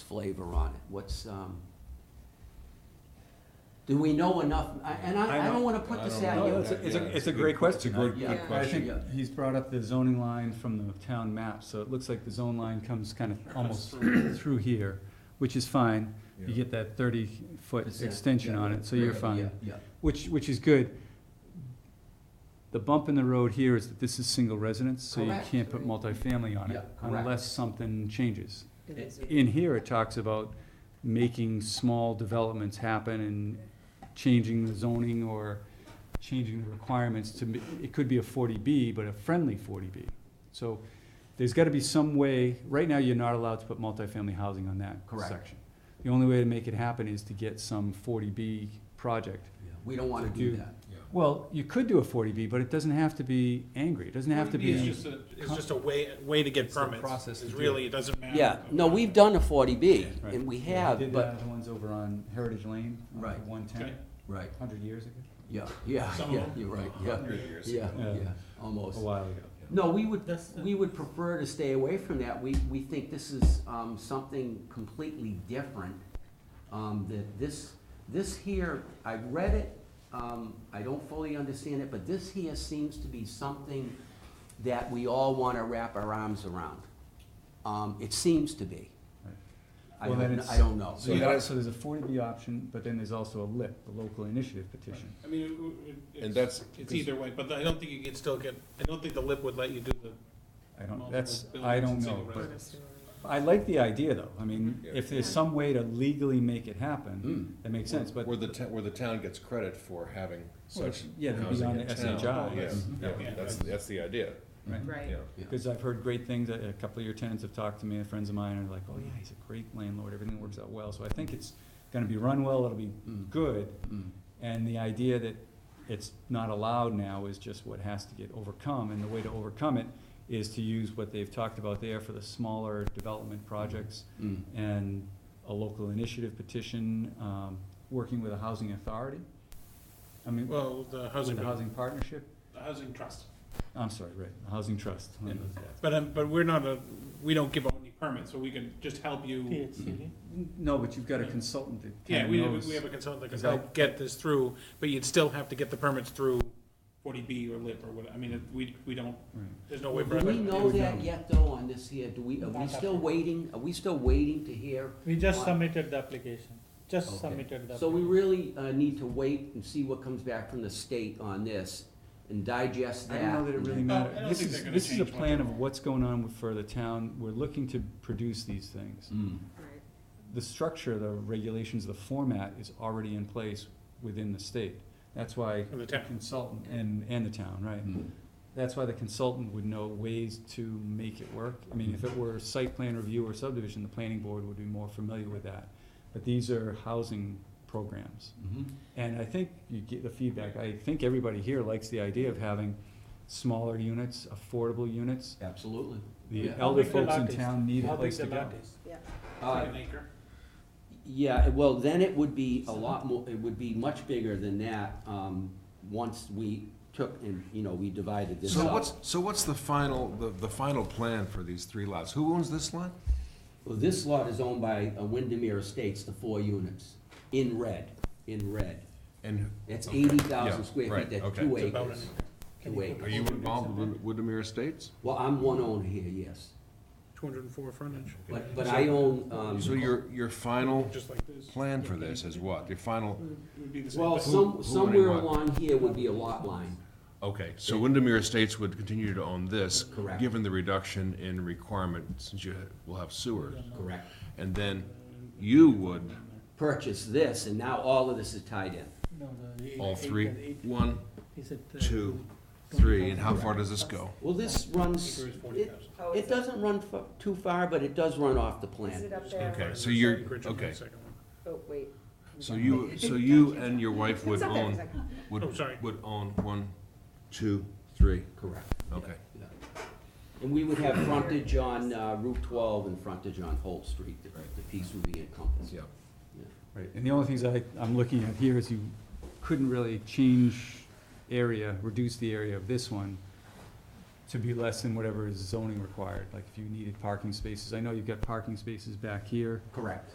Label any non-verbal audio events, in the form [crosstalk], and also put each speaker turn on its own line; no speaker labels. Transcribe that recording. flavor on it? What's, um, do we know enough? I- And I, I don't wanna put this
I
out.
don't
you.
know.
No, it's, a- it's
Yeah,
a, it's a great question.
It's a
I-
good,
Yeah.
good
I
I
question.
think he's brought up the zoning line from the town map, so it looks like the zone line comes kind of almost [clears throat] through here, which is fine. You
Yeah.
get that thirty-foot
Percent,
extension
yeah,
on
yeah,
it, so
yeah,
you're fine,
Yeah,
which, which is good. The bump in the road here is that this is single residence, so you
Correct.
can't put multifamily on
Yeah,
it
correct.
unless something changes.
It is.
In here, it talks about making small developments happen and changing the zoning or changing the requirements to, m- it could be a forty B, but a friendly forty B. So there's gotta be some way, right now, you're not allowed to put multifamily housing on that
Correct.
section. The only way to make it happen is to get some forty B project.
yeah. We don't wanna
To
do
do-
that.
Well, you could do a forty B, but it doesn't have to be angry, it doesn't have to
It's
be,
just a, it's just a way, way to get
It's a
permits,
process to
is
do
really, it doesn't matter.
Yeah, no, we've done a forty B,
Right.
and we
did
have,
the
but,
other ones over on Heritage Lane,
Right.
one ten,
Okay.
right,
hundred years ago,
yeah, yeah,
Some of
yeah,
them.
you're right, yeah, yeah,
Yeah.
yeah, almost.
a while ago.
No, we would, we would prefer to stay away from that. We, we think this is, um, something completely different. Um, that this, this here, I've read it, um, I don't fully understand it, but this here seems to be something that we all wanna wrap our arms around. Um, it seems to be.
Right.
I
Well, then
don't,
it's-
I don't know.
So you got, so there's a forty B option, but then there's also a LIP, the local initiative petition.
I mean, it- it,
And
it's,
that's-
it's either way, but I don't think you can still get, I don't think the lip would let you do the,
I don't,
Multiple
that's, I
buildings
don't
and
know,
single
but
residence.
I like the idea though, I mean,
Yeah.
if there's some way to legally make it happen,
Mm.
that makes sense, but.
Where the, ta- where the town gets credit for having
Well,
such
yeah, they'd be
housing
on
in
the
town.
SHI.
Yeah,
Mhm.
yeah,
Yeah.
that's, that's the idea,
Right.
Right.
yeah.
Because I've heard great things, a a couple of your tenants have talked to me, and friends of mine are like, oh yeah, he's a great landlord, everything works out well, so I think it's gonna be run well, it'll be
Mm.
good,
Mm.
and the idea that it's not allowed now is just what has to get overcome, and the way to overcome it is to use what they've talked about there for the smaller development projects
Mm.
and a local initiative petition, um, working with a housing authority. I mean, with
well, the housing,
the
the
housing partnership,
housing trust.
I'm sorry, right, the housing trust. I mean,
But, um, but we're not a, we don't give out any permits, so we can just help you.
No, but you've got a consultant that
Yeah,
kinda
we,
knows.
we have a consultant that can
Is that-
help get this through, but you'd still have to get the permits through forty B or lip or what, I mean, it- we, we don't,
Right.
there's no way. for
Do we
us-
know that yet though on this here? Do we, are we still waiting, are we still waiting to hear?
We just
What?
submitted the application, just
Okay.
submitted the.
So we
application.
really uh, need to wait and see what comes back from the state on this and digest
I
that.
don't know that it really
No, I
matters.
don't
This
think
is,
they're gonna
this is a
change
plan
much.
of what's going on with- for the town. We're looking to produce these things.
Mm.
Right.
the structure, the regulations, the format is already in place within the state. That's why
And the town.
consultant and, and the town, right? That's why the consultant would know ways to make it work. I mean, if it were site plan review or subdivision, the planning board would be more familiar with that. But these are housing programs.
Mhm.
And I think you get the feedback, I think everybody here likes the idea of having smaller units, affordable units.
Absolutely.
The
Yeah.
elder
How big the
folks in
lot is?
town need a
How big
place to
the
go.
lot is?
Uh,
An acre.
Yeah, well, then it would be a lot more, it would be much bigger than that, um, once we took and, you know, we divided this
So
up.
what's, so what's the final, the, the final plan for these three lots? Who owns this lot?
Well, this lot is owned by uh, Windermere Estates, the four units, in red, in red.
And
That's
Okay.
eighty thousand
Yeah,
square feet,
right,
that's
okay.
two
It's about
acres.
an
Two
are
acres.
you involved with Windermere Estates?
Well, I'm one owner here, yes,
two hundred and four frontage,
but, but I own, um.
So your, your final
just like this.
plan for this is what? Your final,
Would be the same
Well,
thing.
who
some,
would
somewhere
want?
along here would be a lot line.
okay, so Windermere Estates would continue to own this,
Correct.
given the reduction in requirement, since you will have sewer.
Correct.
And then you would,
Purchase this, and now all of this is tied in.
No, the eight-
all three,
acre, eight-
one,
is it, uh,
two,
twenty
three, and how
thousand?
far does this go?
Well, this runs,
Acre is 40,000.
it,
Oh,
it doesn't run fa- too far, but it does run off the
Is it
plan.
up there?
Okay, so you're-
Acreage on the
okay.
second one.
Oh, wait.
So
[laughs]
you, so you and your wife would
It's up there,
own,
second.
Oh,
would,
sorry.
would own one, two, three,
Correct.
okay.
Yeah. And we would have frontage on uh, Route twelve and frontage on Holt Street, the, the piece would be encompassed.
Yeah.
Right, and the only things I, I'm looking at here is you couldn't really change area, reduce the area of this one to be less than whatever is zoning required, like if you needed parking spaces, I know you've got parking spaces back here.
Correct.